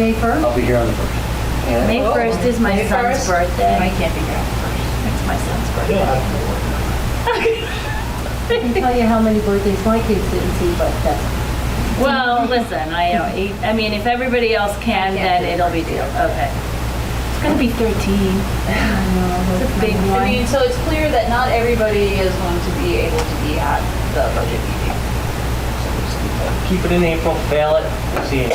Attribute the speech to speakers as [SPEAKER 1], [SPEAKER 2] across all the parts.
[SPEAKER 1] May 1st?
[SPEAKER 2] I'll be here on the first.
[SPEAKER 1] Yeah.
[SPEAKER 3] Oh. May 1st is my
[SPEAKER 1] May
[SPEAKER 3] son's
[SPEAKER 1] 1st?
[SPEAKER 3] birthday.
[SPEAKER 1] I can't be here.
[SPEAKER 3] It's my son's birthday.
[SPEAKER 1] I can tell you how many birthdays my kids didn't see, but that's,
[SPEAKER 3] Well, listen, I, know, eight- I mean, if everybody else can, then it'll be deal, okay. It's gonna be 13.
[SPEAKER 1] I
[SPEAKER 3] It's a big
[SPEAKER 4] I
[SPEAKER 3] one.
[SPEAKER 4] mean, so it's clear that not everybody is going to be able to be at the budget meeting.
[SPEAKER 5] Keep it in April, fail it, and see.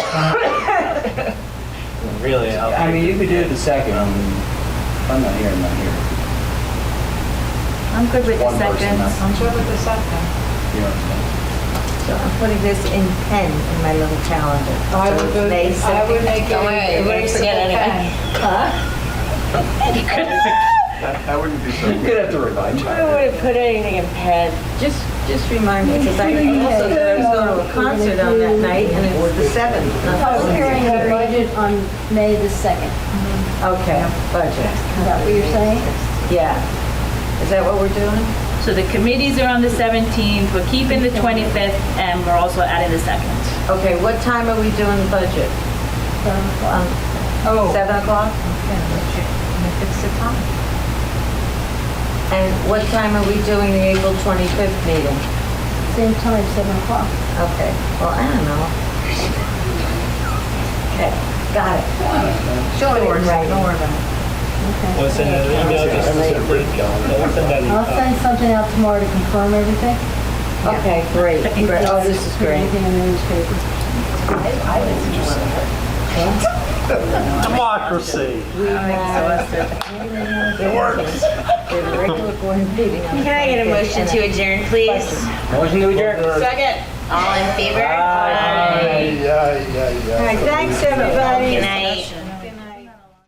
[SPEAKER 5] Really,
[SPEAKER 2] I
[SPEAKER 5] I'll,
[SPEAKER 2] mean, you could do it the second. I mean, If I'm not here, I'm not here.
[SPEAKER 3] I'm good with the
[SPEAKER 2] One person, that's-
[SPEAKER 3] seconds.
[SPEAKER 6] I'm sure with the second.
[SPEAKER 2] You know what I'm saying?
[SPEAKER 7] So I'm putting this in pen in my little calendar.
[SPEAKER 3] Oh,
[SPEAKER 6] I would
[SPEAKER 7] So
[SPEAKER 6] go,
[SPEAKER 7] May
[SPEAKER 6] I would
[SPEAKER 7] 2nd.
[SPEAKER 6] make it.
[SPEAKER 4] Don't worry, you wouldn't forget anything.
[SPEAKER 7] Huh?
[SPEAKER 2] I wouldn't be so. You'd have to remind
[SPEAKER 7] I wouldn't put anything in pen. Just, just remind me, because I also thought I was going to a concert on that night, and it was the 7th. not
[SPEAKER 6] Oh,
[SPEAKER 7] the
[SPEAKER 1] was hearing
[SPEAKER 7] 16th.
[SPEAKER 1] the budget on May the 2nd.
[SPEAKER 7] Okay, budget,
[SPEAKER 1] Is that what you're saying?
[SPEAKER 7] yeah. Is that what we're doing?
[SPEAKER 3] So the committees are on the 17th, we're keeping the 25th, and we're also adding the 2nd.
[SPEAKER 7] Okay, what time are we doing the budget? Um,
[SPEAKER 6] Oh.
[SPEAKER 7] Seven o'clock?
[SPEAKER 6] It's the time.
[SPEAKER 7] And what time are we doing the April 25th meeting?
[SPEAKER 1] Same time, 7 o'clock.
[SPEAKER 7] Okay, well, I don't know. Okay, got it. Sure, don't worry about
[SPEAKER 1] Okay.
[SPEAKER 5] we'll send out an email just to say, we'll send out an
[SPEAKER 1] I'll
[SPEAKER 5] email.
[SPEAKER 1] send something out tomorrow to confirm everything.
[SPEAKER 7] it. Okay, great, great. Oh, this is
[SPEAKER 1] Put
[SPEAKER 7] great.
[SPEAKER 1] Anything in the newspaper.
[SPEAKER 5] Democracy.
[SPEAKER 7] We have. It works. The regular board meeting on the
[SPEAKER 8] Can I get a
[SPEAKER 7] 25th,
[SPEAKER 8] motion
[SPEAKER 7] and
[SPEAKER 8] to adjourn, please?
[SPEAKER 2] Motion to adjourn.
[SPEAKER 4] Second.
[SPEAKER 8] All in favor?
[SPEAKER 5] Aye.
[SPEAKER 7] All right, thanks, everybody.